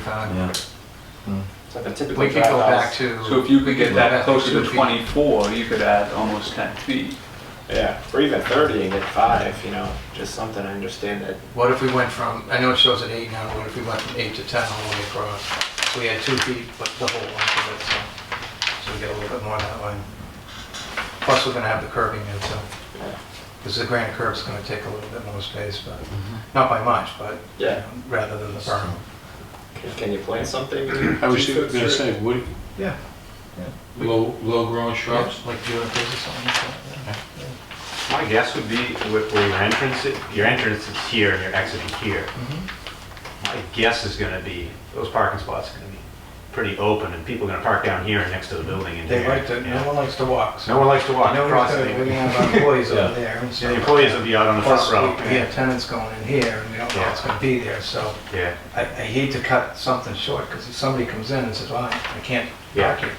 35. Yeah. Hmm. It's like a typical We could go back drivehouse. to. So if you could get that Yeah. closer Two to feet. 24, you could add almost 10 feet. Yeah, or even 30 and get five, you know, just something, I understand that. What if we went from, I know it shows at eight now, what if we went from eight to 10 all the way across? We had two feet, but the whole length of it, so, so we get a little bit more that way. Plus, we're gonna have the curving in, so, yeah. because the granite curve's gonna take a little bit more space, but, not by much, but, you Yeah. know, rather than the berm. Can- Can you plant something? I was just gonna say, wood, Yeah. low, low growing shrubs, Like doing a business or something like that. My guess would be where where your entrance, i- your entrance is here and your exit is here. My guess is gonna be, those parking spots are gonna be pretty open and people are gonna park down here and next to the building in here. They like to, no yeah. one likes to walk, so. No one likes to walk No across one's the gonna, we have our employees over Yeah. there. and so- The employees will be out on the Plus, front row. we we have tenants going in here, and we don't know what's gonna be there, so. Yeah, I, I hate to cut something short, because if somebody comes in and says, well, I I can't Yeah. park here,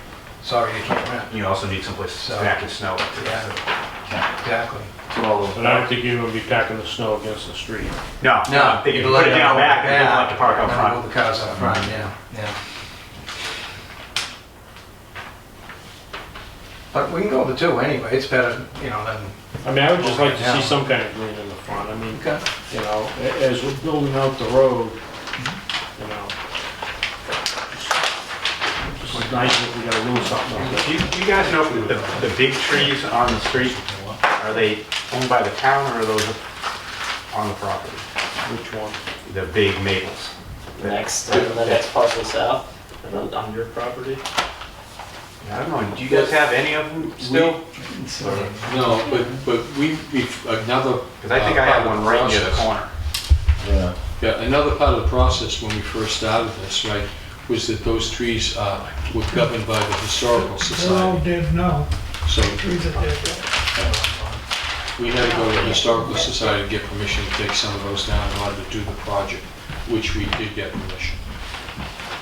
sorry, you can't rent. you also need someplace to So- pack your snow. Yeah. Exactly. but I don't think you're gonna be packing the snow against the street. No, no, they can put it down back, they don't like to park out Then front. Mm-hmm. Move the cars out front, yeah, yeah. But we can go with the two anyway, it's better, you know, than, I mean, I would just like to Yeah. see some kind of green in the front, I mean, you know, a- as we're building out the road, you know. It's just nice if we got a little something on Do you do you guys know if the, the big trees on the street, are they owned by the town or are those on the property? which one. The big maples? Next, uh, the next parcel south, and on- on your property? I don't know, do you guys have any of them still? No, but, but we, we've, another. uh, Because I think I have one right near the corner. Yeah. Yeah, another part of the process when we first started this, right, was that those trees uh, were governed by the Historical They're all Society. dead now, So trees are dead. we had to go to the Historical Society to get permission to take some of those down in order to do the project, which we did get permission.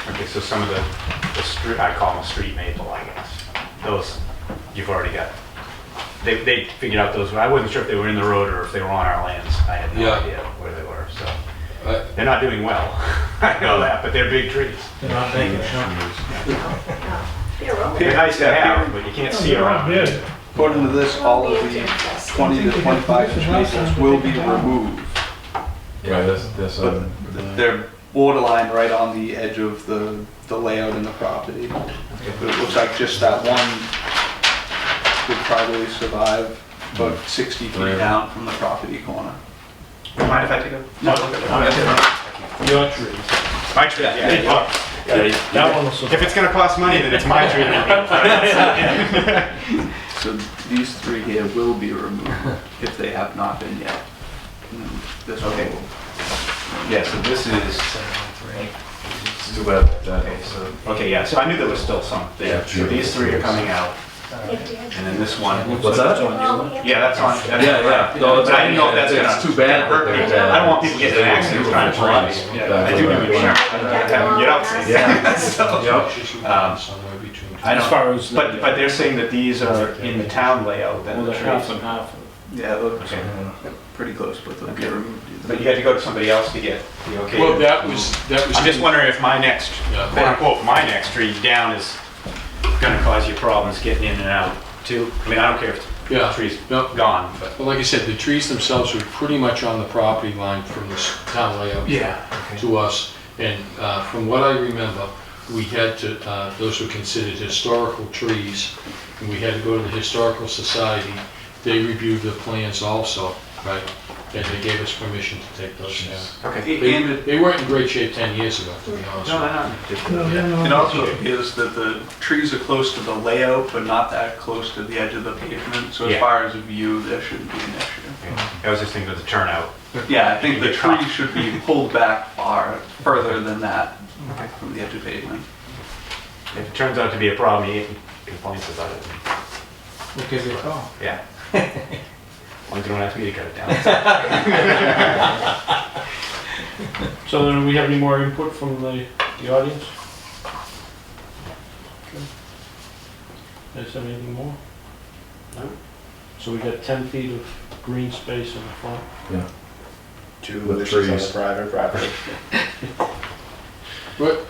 Okay, so some of the, the street, I call them a street maple, I guess. Those, you've already got. They, they figured out those, I wasn't sure if they were in the road or if they were on our lands. I had no Yeah. idea where they were, so. Uh, They're not doing well, I know that, but they're big trees. They're nice to have, but you can't see They're all around. dead. According to this, all of the 20 to 25 inch maples will be removed. Yeah, that's, that's, But um, they're borderline right on the edge of the, the layout and the property. But it looks like just that one would probably survive about 60 feet down from the property corner. Mind if I take a? No. Your trees. My tree, yeah. That one was, If it's gonna cost money, then it's my tree. So these three here will be removed if they have not been yet. And then This one Okay. will. Yeah, so this is, it's too bad that, okay, so, okay, yeah, so I knew there was still some there. Yeah, So these three are coming out, and then this one. What's that? Yeah, that's on. that's- Yeah, yeah. No, it's- But I didn't know if that's it's gonna. too bad that they- I don't want people getting in accidents trying to Lines. drive. Yeah, I do do insurance, I have to have them get out safe. Yeah. Yep. she's Um, somewhere between. I As don't- far as. But, but they're saying that these are in the town layout, then Well, the they're half trees. and half. Yeah, it looks Okay. pretty close, but they'll be removed. either But way. you had to go to somebody else to get the okay. Well, that was, that was. I'm just wondering if my next, Yeah. quote unquote, my next tree down is gonna cause you problems getting in and out too. I mean, I don't care if the Yeah. tree's No, gone, but. Well, like I said, the trees themselves were pretty much on the property line from this town layout yeah. to us. And uh, from what I remember, we had to, uh, those were considered historical trees, and we had to go to the Historical Society. They reviewed the plans also, right? And they gave us permission to take those down. Okay. They they weren't in great shape 10 years ago, to be honest No, with no, no. No, they're not. It also appears that the trees are close to the layout, but not that close to the edge of the pavement, so as Yeah. far as view, there shouldn't be an issue. I was just thinking of the turnout. Yeah, I think You the can get trees should be pulled back far, further than that from the edge of pavement. If it turns out to be a problem, he complains about it. We'll give you a call. Yeah. As long as you don't ask me to cut it down. you. So then, do we have any more input from the, the audience? Okay. Is there anything more? No. So we got 10 feet of green space in the front. Two With wishes on the trees. private property. What,